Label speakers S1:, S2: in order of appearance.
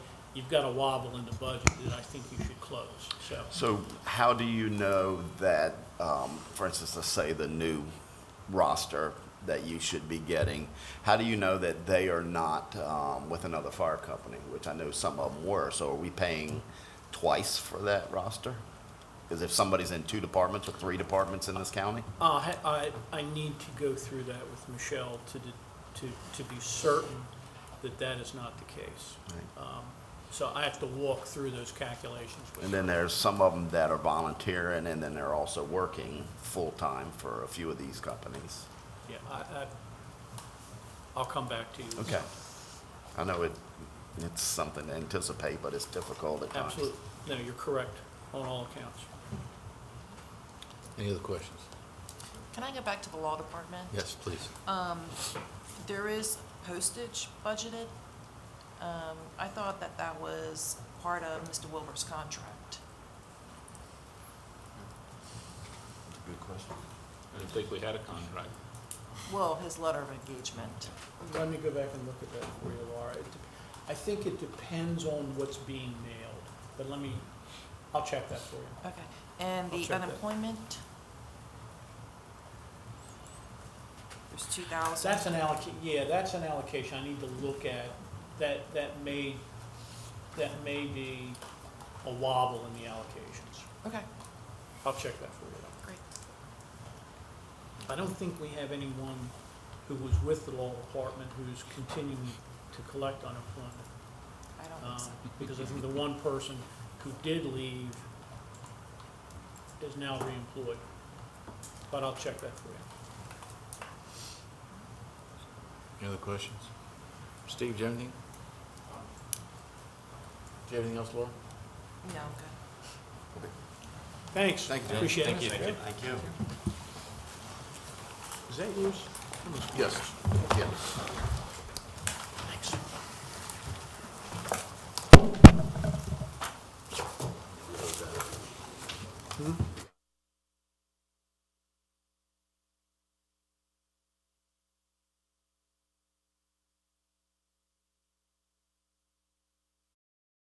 S1: you've got a wobble in the budget that I think you should close, so.
S2: So how do you know that, um, for instance, let's say the new roster that you should be getting, how do you know that they are not um, with another fire company, which I know some of them were? So are we paying twice for that roster? Because if somebody's in two departments or three departments in this county?
S1: Uh, ha- I, I need to go through that with Michelle to, de- to, to be certain that that is not the case. Um, So I have to walk through those calculations with
S2: And
S1: her.
S2: then there's some of them that are volunteering, and then they're also working full-time for a few of these companies.
S1: Yeah, I, I, I'll come back to you.
S2: Okay. I know it, it's something to anticipate, but it's difficult at times.
S1: Absolutely. No, you're correct on all accounts.
S3: Any other questions?
S4: Can I go back to the law department? Um,
S3: Yes, please.
S4: There is postage budgeted. Um, I thought that that was part of Mr. Wilbur's contract.
S2: Good question.
S5: I didn't think we had a contract.
S4: Well, his letter of engagement.
S1: Let me go back and look at that for you, Laura. It dep- I think it depends on what's being mailed, but let me, I'll check that for you.
S4: Okay. And
S1: I'll check
S4: the
S1: that.
S4: unemployment? There's two thousand.
S1: That's an alloc, yeah, that's an allocation I need to look at. That, that may, that may be a wobble in the allocations.
S4: Okay,
S1: I'll check that for you.
S4: great.
S1: I don't think we have anyone who was with the law department who's continuing to collect unemployment.
S4: I don't think
S1: um,
S4: so.
S1: Because I think the one person who did leave is now reemployed. But I'll check that for you.
S3: Any other questions? Steve, do you have anything? Do you have anything else, Laura?
S4: No, I'm good.
S1: Thanks.
S2: Thank you.
S1: Appreciate it.
S5: Thank you.
S2: Thank you.
S1: Is that yours?
S3: Yes. Yes.